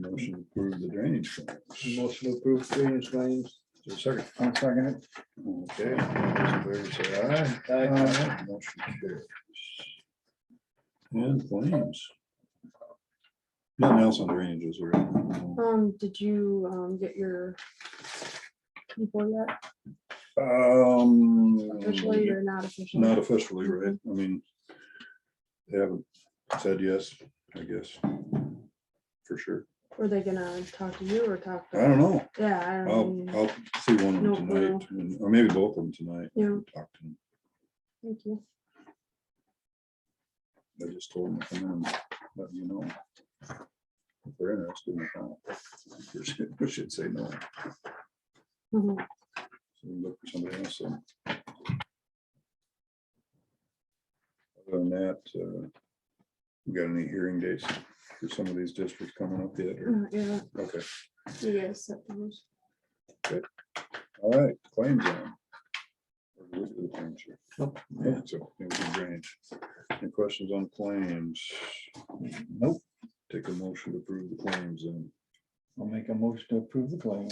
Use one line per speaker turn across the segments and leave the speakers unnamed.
motion to approve the drainage. claims.
Motion to approve drainage claims.
Is there a Second,
I'll second it.
okay, all those in favor say aye. Aye. Motion carries. And claims. Nothing else on drainage is there?
Um, did you, um, get your people yet?
Um.
Officially or not officially?
Not officially, right? I mean, they haven't said yes, I guess, for sure.
Were they gonna talk to you or talk
I
to?
don't know.
Yeah, I
I'll,
mean,
I'll see one of
No
them tonight, and- or maybe both of them tonight.
Yeah.
and Talk to them.
thank you.
I just told them, to come in, and let you know. If they're interested in that. We should say no.
Mhm.
So we Look for somebody else. then. Other than that, uh, we got any hearing dates for some of these districts coming up yet? or-
Uh, Yeah,
Okay,
you guys set those.
all right, claims on. Or we do the claims here.
Nope.
Yeah, so it was drainage. Any questions on claims? Nope. Take a motion to approve the claims and
I'll make a motion to approve the claim.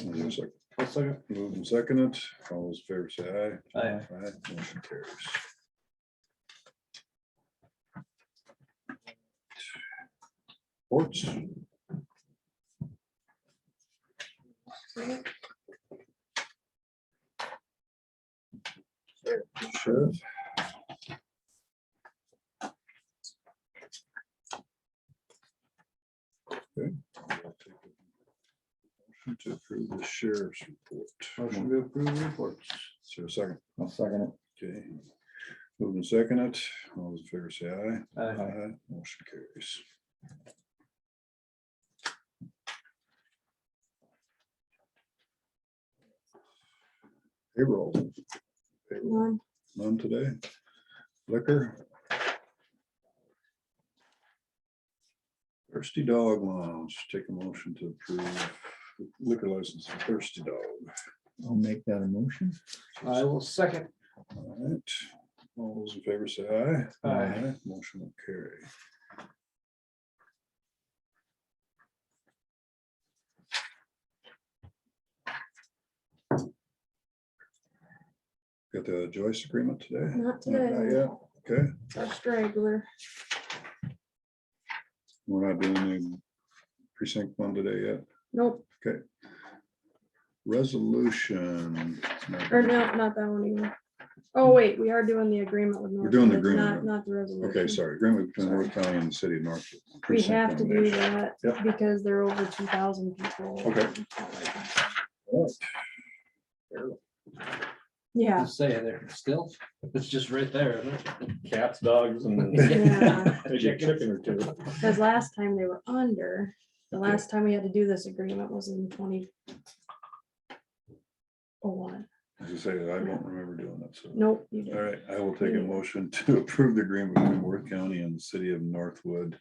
I'll second.
move and second it. All those in favor say aye.
Aye.
Aye, Motion carries. Reports. Sheriff. Okay. I'll take a motion To approve the sheriff's report.
Motion to approve reports.
Is there a second?
I'll second
Okay. Moving second it, all those in favor say aye.
Aye.
Motion carries. Payroll,
One,
none today. Liquor. Thirsty Dog Lounge, take a motion to approve liquor license for Thirsty Dog.
it. I'll make that a motion.
I will second.
All right, all those in favor say aye.
Aye.
Motion will carry. Got the Joyce agreement today?
not today,
Yeah, okay,
our straggler.
we're not doing the precinct one today yet.
Nope,
Resolution.
or no, not that one either. Oh, wait, we are doing the agreement with.
Hmm. We're doing the
Northwood, Not,
agreement.
not the resolution.
Okay, sorry, agreement between
Sorry.
North County and the city of North.
We
Precinct
have to
one
do
nation.
that
Yep.
because there are over two thousand people.
Okay.
Yeah,
Just Say there, still, it's just right there. isn't it?
cats, dogs, and
yeah,
maybe a chicken or two.
because last time they were under, the last time we had to do this agreement was in twenty oh one.
As I say, I don't remember doing that, so.
nope, you
All
didn't.
right, I will take a
Mm.
motion to approve the agreement between Worth County and the city of Northwood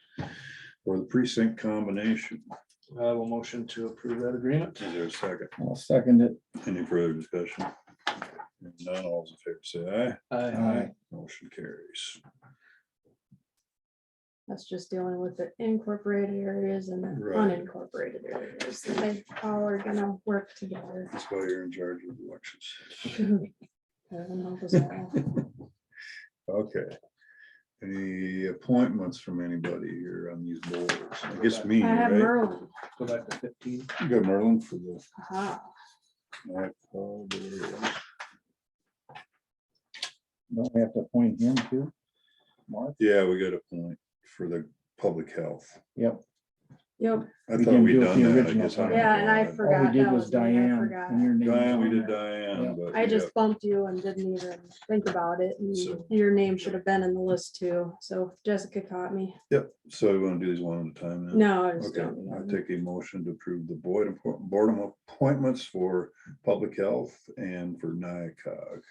for the precinct combination.
I will motion to approve that agreement.
Is there a second?
I'll second it.
Any further discussion? If None, all those in favor say aye.
Aye.
Motion carries.
That's just dealing with the incorporated areas and the
Right.
unincorporated areas. They all are gonna work together.
That's why you're in charge of elections.
Everyone knows that.
Okay. Any appointments from anybody here on these boards? I guess me,
I have
right?
Merlin.
Go
Uh-huh.
back to fifteen.
You got Merlin for the.
Aha.
all right, Paul, there
Don't we have to appoint him too? Mark?
we go. Yeah, we got a point for the public health.
Yep.
Yep,
I
We
thought
didn't
we
do it
done
the
that. I
original
guess I
time.
don't
yeah, and
know.
I
All we
forgot.
did
that
was
me, I
Diane.
forgot.
and your name was
Diane, we
on
did
there. Yeah.
Diane, but.
I
yeah,
just bumped you and didn't even think about it. and
So-
Your name should have been in the list too. So Jessica caught me.
Yep, so we want to do these one at a time now.
No, I just
Okay,
don't.
I
know.
take a motion to approve the board, appo- board appointments for public health and for NICOG.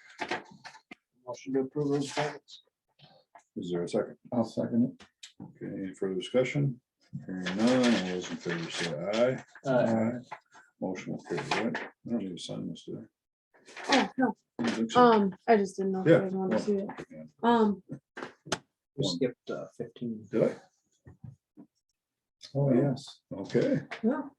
Motion to approve those appointments.
Is there a second?
I'll second it.
Okay, any further discussion? Hearing none, all those in favor say aye.
Aye.
Motion will carry, right? I don't need to sign this, do
Oh, no,
I? I think so.
Um, I just didn't know if you
Yeah, Oh,
guys wanted to see it.
yeah.
Um,
We skipped uh, fifteen.
Did I?
Oh, yes.
Okay,
no,